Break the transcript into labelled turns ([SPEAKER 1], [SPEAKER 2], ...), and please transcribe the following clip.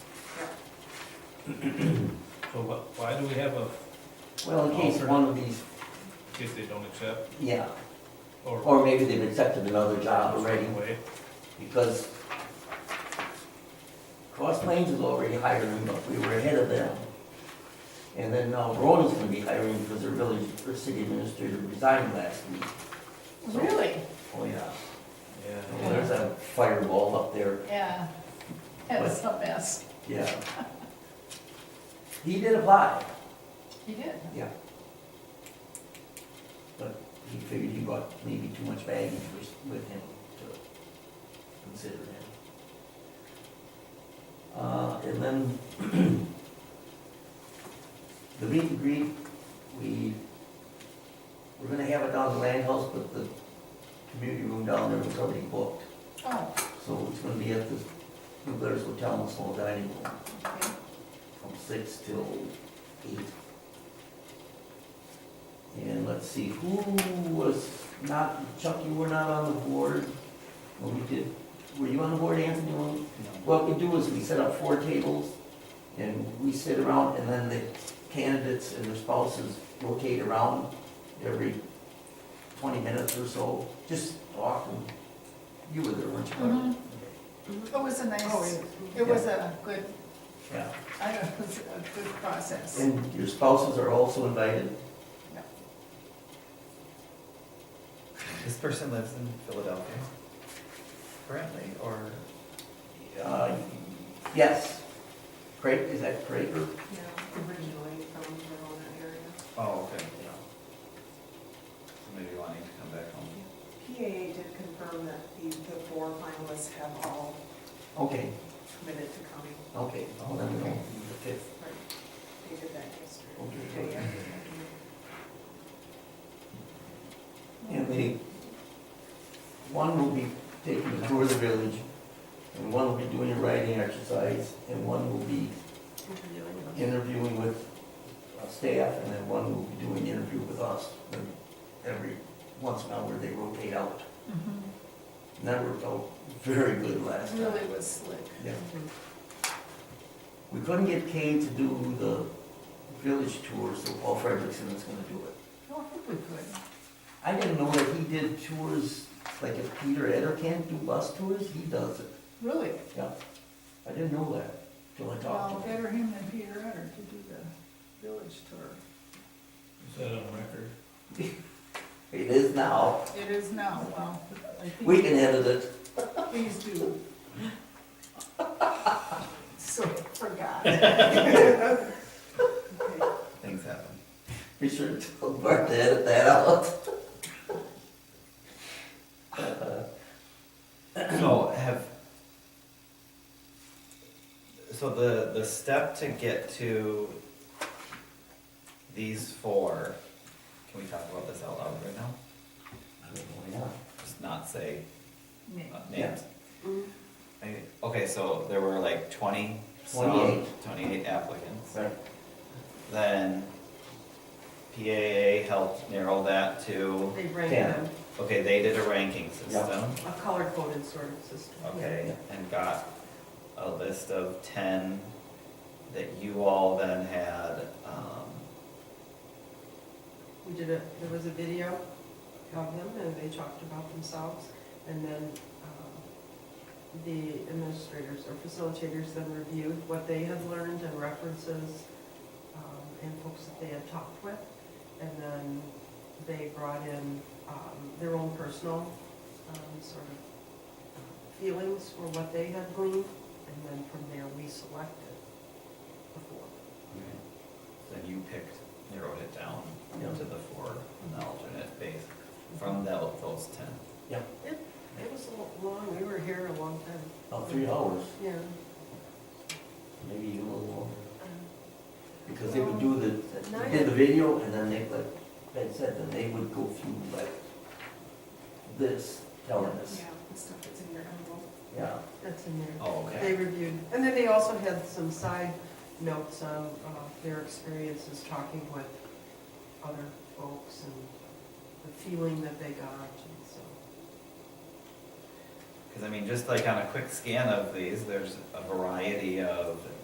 [SPEAKER 1] So wh- why do we have a,
[SPEAKER 2] Well, in case one of these,
[SPEAKER 1] in case they don't accept,
[SPEAKER 2] yeah,
[SPEAKER 1] or
[SPEAKER 2] or maybe they've accepted another job already,
[SPEAKER 1] away?
[SPEAKER 2] because Cross Plains is already hiring, but we were ahead of them. And then now Verona's gonna be hiring because their village, their city administrator resigned last week.
[SPEAKER 3] Really?
[SPEAKER 2] Oh, yeah.
[SPEAKER 1] Yeah.
[SPEAKER 2] Well, There's a fireball up there,
[SPEAKER 3] Yeah. That was a mess.
[SPEAKER 2] yeah. He did apply,
[SPEAKER 3] He did.
[SPEAKER 2] yeah. But he figured he brought maybe too much baggage with- with him to consider him. Uh, and then the meet and greet, we, we're gonna have it down at the land house, but the community room down there was already booked.
[SPEAKER 3] Oh,
[SPEAKER 2] So it's gonna be at the New Glarus Hotel and Small Dining Room
[SPEAKER 3] okay.
[SPEAKER 2] from six till eight. And let's see, who was not, Chuck, you were not on the board when we did, were you on the board, Anthony? when- What we do is we set up four tables and we sit around and then the candidates and their spouses rotate around every twenty minutes or so, just talk and you were there, weren't you? Barbara?
[SPEAKER 3] Mhm. It was a nice, it was a good,
[SPEAKER 2] Yeah.
[SPEAKER 3] I don't know, it was a good process.
[SPEAKER 2] And your spouses are also invited?
[SPEAKER 4] This person lives in Philadelphia currently, or
[SPEAKER 2] Uh, Yes. Craig, is that Craig or?
[SPEAKER 5] Yeah, originally from Verona area.
[SPEAKER 4] oh, okay, yeah. So maybe wanting to come back home.
[SPEAKER 5] PAA did confirm that the, the four finalists have all
[SPEAKER 2] Okay,
[SPEAKER 5] committed to coming.
[SPEAKER 2] okay. Well, then we don't need the fifth.
[SPEAKER 5] Right. They did that yesterday.
[SPEAKER 2] Okay.
[SPEAKER 5] Day after that.
[SPEAKER 2] And they, one will be taking a tour of the village, and one will be doing a writing exercise, and one will be
[SPEAKER 5] Interviewing
[SPEAKER 3] Mm-hmm.
[SPEAKER 5] them.
[SPEAKER 2] interviewing with uh, staff, and then one will be doing interview with us. And Every, once an hour, they rotate out.
[SPEAKER 3] Mhm.
[SPEAKER 2] And that worked out very good last time.
[SPEAKER 3] Really was slick.
[SPEAKER 2] Yeah. We couldn't get Kay to do the village tour, so Paul Frederickson is gonna do it.
[SPEAKER 3] Oh, I think we could.
[SPEAKER 2] I didn't know that he did tours, like if Peter Eder can't do bus tours, he does it.
[SPEAKER 3] Really?
[SPEAKER 2] Yeah, I didn't know that till I
[SPEAKER 3] Well,
[SPEAKER 2] talked to him.
[SPEAKER 3] better him than Peter Utter to do the village tour.
[SPEAKER 1] Is that on record?
[SPEAKER 2] It is now.
[SPEAKER 3] It is now, well, I
[SPEAKER 2] We
[SPEAKER 3] think,
[SPEAKER 2] can edit it.
[SPEAKER 3] please do. So, forgot.
[SPEAKER 5] Okay.
[SPEAKER 4] Things happen.
[SPEAKER 2] Be sure to tell Bart to edit that out.
[SPEAKER 4] So have, so the, the step to get to these four, can we talk about this out loud right now?
[SPEAKER 2] I don't know, yeah.
[SPEAKER 4] Just not say
[SPEAKER 3] Nick.
[SPEAKER 4] uh,
[SPEAKER 2] Yeah.
[SPEAKER 4] names? Maybe- Okay, so there were like twenty, so,
[SPEAKER 2] 28.
[SPEAKER 4] twenty-eight applicants.
[SPEAKER 2] Right,
[SPEAKER 4] Then PAA helped narrow that to,
[SPEAKER 5] They ranked
[SPEAKER 2] Yeah.
[SPEAKER 5] them,
[SPEAKER 4] okay, they did a ranking
[SPEAKER 2] Yeah.
[SPEAKER 4] system,
[SPEAKER 5] a color coded sort of system.
[SPEAKER 4] okay, and got a list of ten that you all then had, um,
[SPEAKER 5] We did a, there was a video of them and they talked about themselves. And then um, the administrators or facilitators then reviewed what they had learned and references um, and folks that they had talked with. And then they brought in um, their own personal um, sort of uh, feelings for what they had gleaned. And then from there, we selected the four.
[SPEAKER 4] then you picked, narrowed it down
[SPEAKER 2] Yeah.
[SPEAKER 4] to the four, on the alternate base, from tho- those ten.
[SPEAKER 5] It was a lo- long, we were here a long time,
[SPEAKER 2] about three hours,
[SPEAKER 5] yeah.
[SPEAKER 2] maybe even a little longer.
[SPEAKER 5] um,
[SPEAKER 2] Because they would do the,
[SPEAKER 5] At
[SPEAKER 2] they did the
[SPEAKER 5] night,
[SPEAKER 2] video, and then they, like Ben said, then they would go through like this, telling us,
[SPEAKER 6] Yeah, the stuff that's in your envelope.
[SPEAKER 2] yeah.
[SPEAKER 5] that's in there.
[SPEAKER 4] Oh, okay.
[SPEAKER 5] They reviewed, and then they also had some side notes on uh, their experiences talking with other folks and the feeling that they got, and so.
[SPEAKER 4] Because I mean, just like on a quick scan of these, there's a variety of